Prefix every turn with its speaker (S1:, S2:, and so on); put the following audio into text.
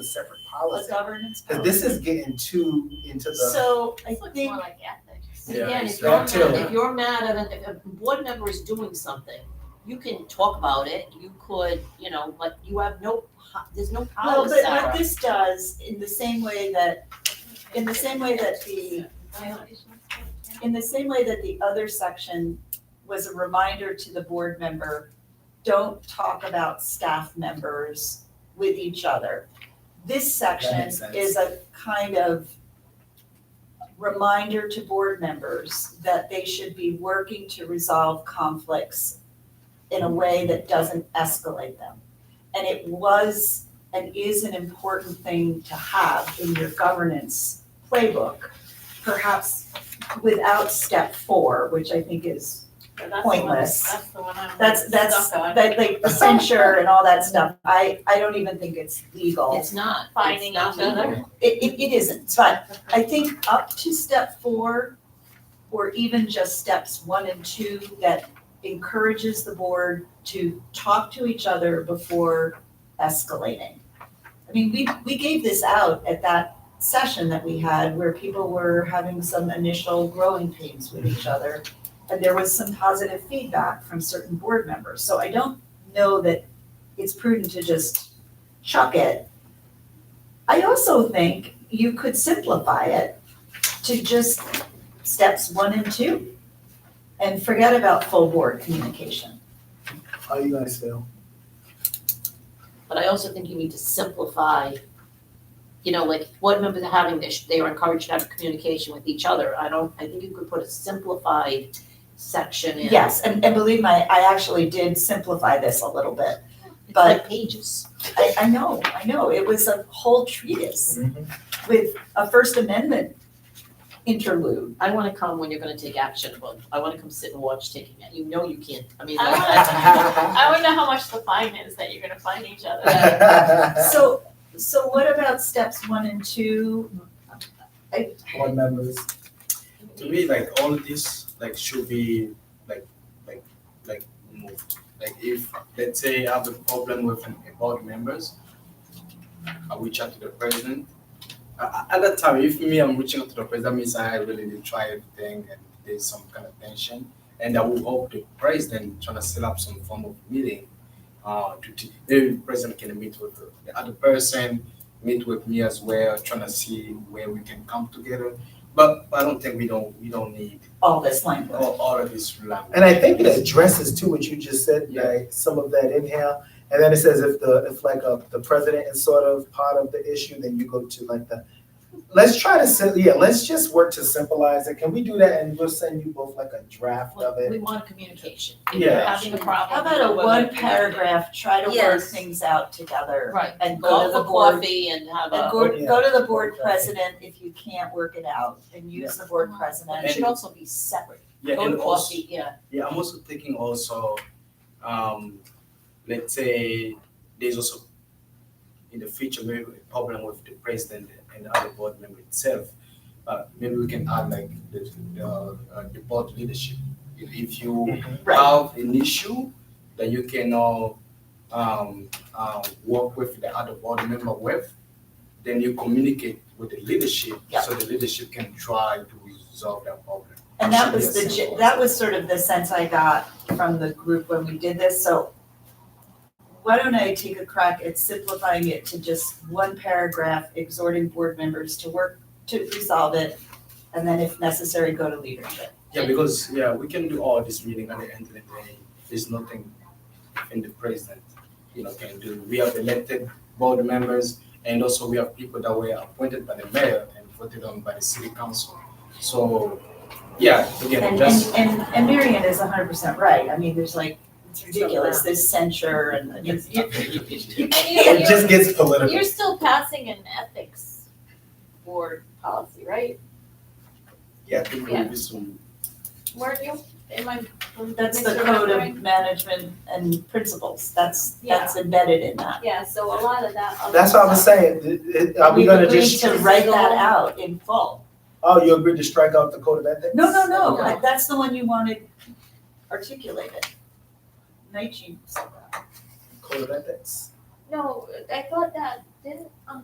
S1: a separate
S2: a
S1: policy.
S2: governance.
S1: Cause this is getting too into the,
S2: So I
S3: This looks
S2: think
S3: more like ethics.
S1: Yeah,
S2: Again, if
S1: it's
S2: you're
S1: not
S2: mad,
S1: till-
S2: if you're mad at a, if a board member is doing something, you can talk about it, you could, you know, like, you have no, po- there's no
S4: Well,
S2: power,
S4: but what
S2: Sarah.
S4: this does, in the same way that, in the same way that the, in the same way that the other section was a reminder to the board member, don't talk about staff members with each other. This section
S1: makes sense.
S4: is a kind of reminder to board members that they should be working to resolve conflicts in a way that doesn't escalate them. And it was and is an important thing to have in your governance playbook, perhaps without step four, which I think is,
S2: But that's the one-
S4: pointless.
S2: That's the one I'm
S4: that's, that's,
S2: stuck on.
S4: that, like, the censure and all that stuff. I, I don't even think it's legal.
S2: It's not,
S3: Finding
S2: it's not
S3: each other.
S2: legal.
S4: It, it, it isn't, but I think up to step four, or even just steps one and two, that encourages the board to talk to each other before escalating. I mean, we, we gave this out at that session that we had where people were having some initial growing pains with each other. And there was some positive feedback from certain board members, so I don't know that it's prudent to just chuck it I also think you could simplify it to just steps one and two and forget about full board communication.
S1: how you guys feel?
S2: But I also think you need to simplify, you know, like, board members are having this, they are encouraged to have communication with each other. I don't, I think you could put a simplified section in.
S4: Yes, and, and believe me, I actually did simplify this a little bit.
S2: It's
S4: but-
S2: like pages.
S4: I, I know, I know, it was a whole treatise with a First Amendment interlude.
S2: I wanna come when you're gonna take action, but I wanna come sit and watch taking it. You know you can't, I mean,
S3: I
S2: like,
S3: wanna-
S2: that's-
S3: I wanna know how much the fine is that you're gonna fine each other.
S4: So, so what about steps one and two?
S1: Board members.
S5: to me like all of this like should be like like like moved like if let's say i have a problem with an, a board members i reach out to the president uh, at that time if me i'm reaching out to the president means i really did try everything and there's some kind of tension and i will hope the president trying to set up some form of meeting uh to t- maybe the president can meet with the other person meet with me as well trying to see where we can come together but i don't think we don't we don't need
S4: All this language.
S5: all, all of this language.
S1: And I think it addresses too what you just said, like some of that in here. And then it says if the, if like uh the president is sort of part of the issue, then you go to like the, let's try to, sim- yeah, let's just work to symbolize it. Can we do that? And we'll send you both like a draft of
S2: we
S1: it.
S2: want communication. If you're
S1: Yeah.
S2: having a problem.
S4: How about a
S2: we're
S4: one
S2: gonna
S4: paragraph, try to work
S2: Yes.
S4: things out together?
S2: Right,
S4: And go
S2: go
S4: to
S2: for
S4: the board
S2: coffee and have
S4: And
S2: a,
S4: go,
S1: Yeah.
S4: go to the board president if you can't work it out and use the board
S2: and it
S4: president.
S2: should also be separate.
S5: yeah,
S2: Go
S5: and
S2: to
S5: also,
S2: coffee, yeah.
S5: yeah, I'm also thinking also, um, let's say there's also in the future maybe a problem with the president and the other board member itself. Uh, maybe we can add like the uh, uh, the board leadership. If if you
S4: Right,
S5: have an issue that you can all um, uh, work with the other board member with, then you communicate with the leadership
S4: Yeah.
S5: so the leadership can try to resolve that problem.
S4: and that was the, ge- that was sort of the sense I got from the group when we did this, so why don't I take a crack at simplifying it to just one paragraph exhorting board members to work, to resolve it, and then if necessary, go to leadership.
S5: Yeah, because yeah, we can do all this meeting at the end of the day. There's nothing in the president, you know, can do. We have elected board members and also we have people that were appointed by the mayor and voted on by the city council. So yeah, again,
S4: And,
S5: just
S4: and, and, and Marion is hundred percent right, I mean, there's like, it's ridiculous, there's censure and it's,
S3: And
S4: Yeah.
S1: It
S3: you're,
S1: just gets
S3: you're,
S1: political.
S3: you're still passing an ethics board policy, right?
S5: Yeah, I think
S3: Yeah.
S5: we'll be soon.
S3: Weren't you, am I?
S4: That's the
S3: misremembering?
S4: code of management and principles, that's,
S3: Yeah.
S4: that's embedded in that.
S3: Yeah, so a lot of that. other
S1: That's what I was
S3: stuff.
S1: saying. Th- it- Are we gonna just,
S4: We've agreed to write that out in full.
S1: oh, you agreed to strike out the code of ethics?
S4: No, no, no,
S2: No.
S4: that's the one you wanted articulated. Night Jean said that.
S1: Code of ethics.
S3: No, I thought that, didn't, um,